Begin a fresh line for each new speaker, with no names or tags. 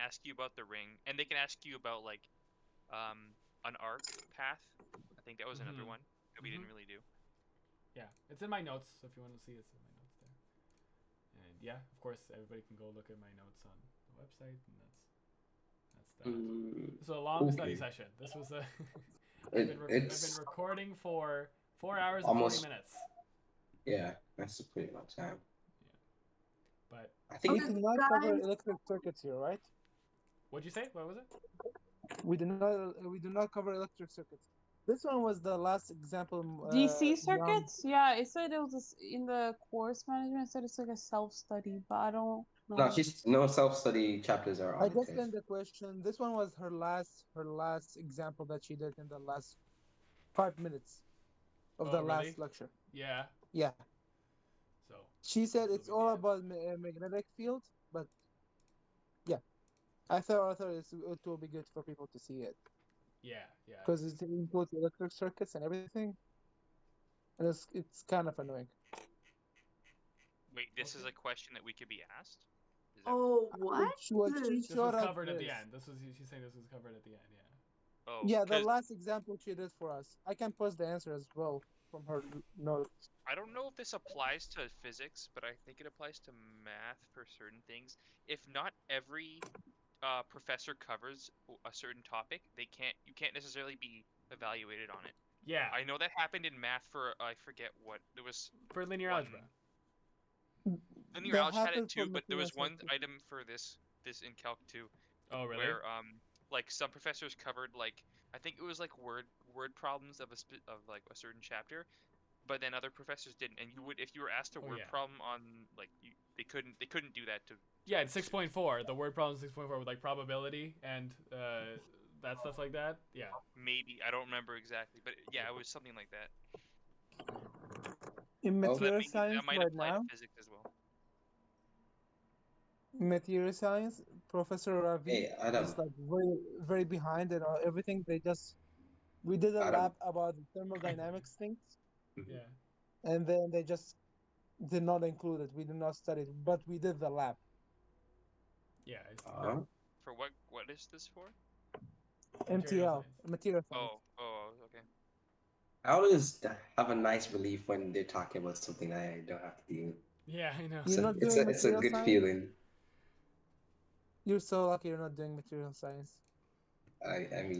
ask you about the ring, and they can ask you about like um, an arc path. I think that was another
Mhm.
one that we didn't really do.
Yeah, it's in my notes. So if you want to see, it's in my notes there. And yeah, of course, everybody can go look at my notes on the website, and that's that's that.
Mm,
This was a long study
Okay.
session. This was a. I've,
it,
been rec- I've been
it's
recording for four hours and
Almost-
forty minutes,
yeah, that's a pretty long time.
but
I
We
think
did
it-
not cover
Guys.
electric circuits here, right?
what'd you say? What was it?
We do not. We do not cover electric circuits. This one was the last example. uh,
DC
beyond-
circuits? Yeah, it said it was this- in the course management. It said it's like a self study, but I don't know.
no, she's no self study chapters are
I
on
just
this.
sent the question. This one was her last. Her last example that she did in the last five minutes of
Oh,
the
really?
last lecture.
Yeah.
Yeah,
So
she said
So
it's
we
all
did.
about ma- uh, magnetic field, but yeah, I thought I thought it's, it will be good for people to see it.
yeah, yeah.
because it includes electric circuits and everything. And it's it's kind of annoying.
Wait, this is
Okay.
a question that we could be asked. Is that-
Oh,
What? She, what she
This
This was
showed us
covered at the
this.
end. This was she's saying this was covered at the end. Yeah.
oh,
Yeah, the
'cause
last example she did for us. I can post the answer as well from her notes.
I don't know if this applies to physics, but I think it applies to math for certain things. If not every uh, professor covers w- a certain topic, they can't. You can't necessarily be evaluated on it.
Yeah.
I know that happened in math for uh, I forget what there was.
for linear
one-
algebra.
Linear
That
algebra had it
happened for
too, but there was one
mathematics.
item for this this in calc too,
Oh really?
where um like some professors covered like I think it was like word word problems of a sp- of like a certain chapter, but then other professors didn't. And you would if you were asked a
Oh,
word
yeah.
problem on like you, they couldn't they couldn't do that to
Yeah, it's six point four. The word problem six point four with like probability and uh, that stuff like that. Yeah.
maybe I don't remember exactly, but yeah, it was something like that.
In
Oh.
So that,
material
may-
science
that might
right
apply
now,
to physics as well.
in material science, Professor Ravi
Hey, Adam,
is like very very behind and all, everything. They just we did a
Adam.
lab about thermodynamics things,
Yeah.
and then they just did not include it. We did not study it, but we did the lab.
Yeah. It's,
uh,
For what what is this for?
MTL,
Material science.
material science.
Oh oh okay.
how does that have a nice relief when they're talking about something that I don't have to deal with?
Yeah, I know.
You're
So
not
it's
doing
a, it's a
material
good
science?
feeling.
You're so lucky you're not doing material science.
I, I mean,